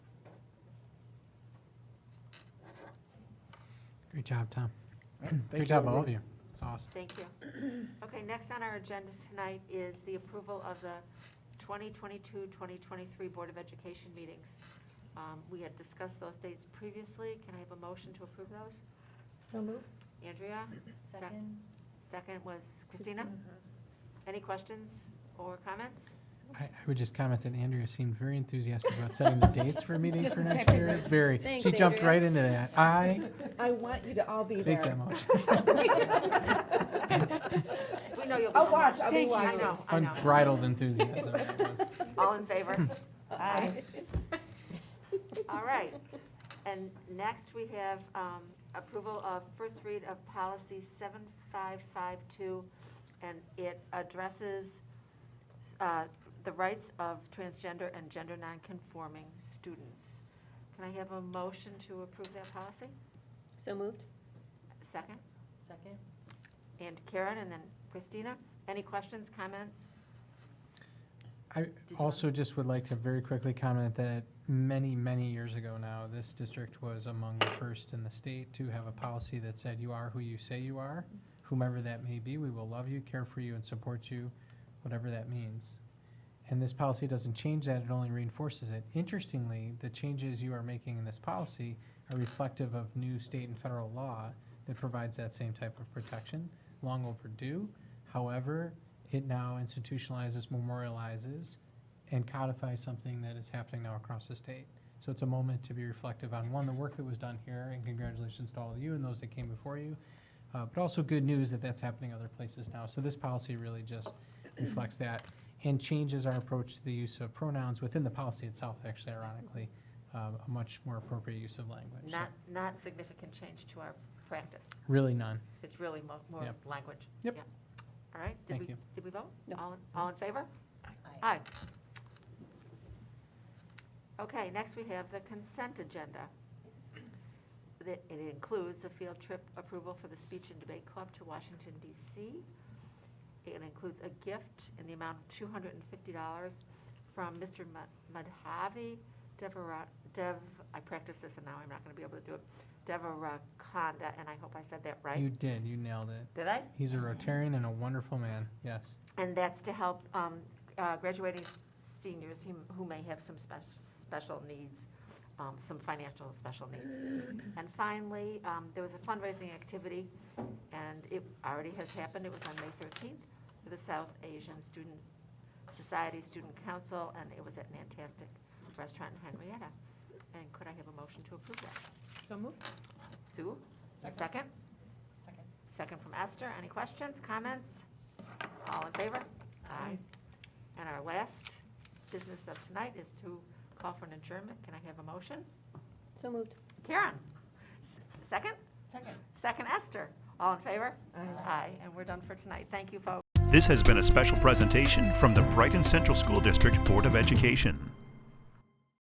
Great job, Tom. Thank Great job, you, all of everyone. you. It's awesome. Thank you. Okay, next on our agenda tonight is the approval of the 2022-2023 Board of Education meetings. Um, We had discussed those dates previously. Can I have a motion to approve those? So moved. Andrea? Sec- Second. Second was Christina. Any questions or comments? I, I would just comment that Andrea seemed very enthusiastic about setting the dates for meetings for next year. Very. Thanks, She jumped Andrea. right into that. I I want you to all be make that there. motion. We know you'll be. I'll watch, I'll be Thank you. I watching. know, I know. Unbridled enthusiasm. All in favor? Aye. All right. And next, we have um, approval of first read of policy 7552, and it addresses uh, the rights of transgender and gender nonconforming students. Can I have a motion to approve that policy? So moved. Second? Second. And Karen, and then Christina? Any questions, comments? I you also just would like to very quickly comment that many, many years ago now, this district was among the first in the state to have a policy that said you are who you say you are, whomever that may be, we will love you, care for you, and support you, whatever that means. And this policy doesn't change that, it only reinforces it. Interestingly, the changes you are making in this policy are reflective of new state and federal law that provides that same type of protection, long overdue. However, it now institutionalizes, memorializes, and codifies something that is happening now across the state. So it's a moment to be reflective on, one, the work that was done here, and congratulations to all of you and those that came before you, uh, but also good news that that's happening other places now. So this policy really just reflects that and changes our approach to the use of pronouns within the policy itself, actually ironically, um, a much more appropriate use of language. So Not, not significant change to our practice. Really none. It's really mo- more Yep. language. Yep. All right. Did Thank we you. Did we vote? No. All, in- all in favor? Aye. Okay, next we have the consent agenda. The- It includes a field trip approval for the Speech and Debate Club to Washington DC. It includes a gift in the amount of $250 from Mr. Ma- Madhavi Devara, Dev, I practiced this and now I'm not going to be able to do it, Devarakonda, and I hope I said that You right. did. You nailed it. Did I? He's a Rotarian and a wonderful man. Yes. And that's to help um, uh, graduating s- seniors who who may have some spec- special needs, um, some financial special needs. And finally, um, there was a fundraising activity, and it already has happened. It was on May 13th for the South Asian Student Society Student Council, and it was at Nantastic Restaurant in Henrietta. And could I have a motion to approve that? So moved. Sue? Second? Second. Second from Esther. Any questions, comments? All in favor? Aye. And our last business of tonight is to call for an adjournment. Can I have a motion? So moved. Karen? S- Second? Second. Second Esther. All in favor? Aye. Aye. And we're done for tonight. Thank you, folks. This has been a special presentation from the Brighton Central School District Board of Education.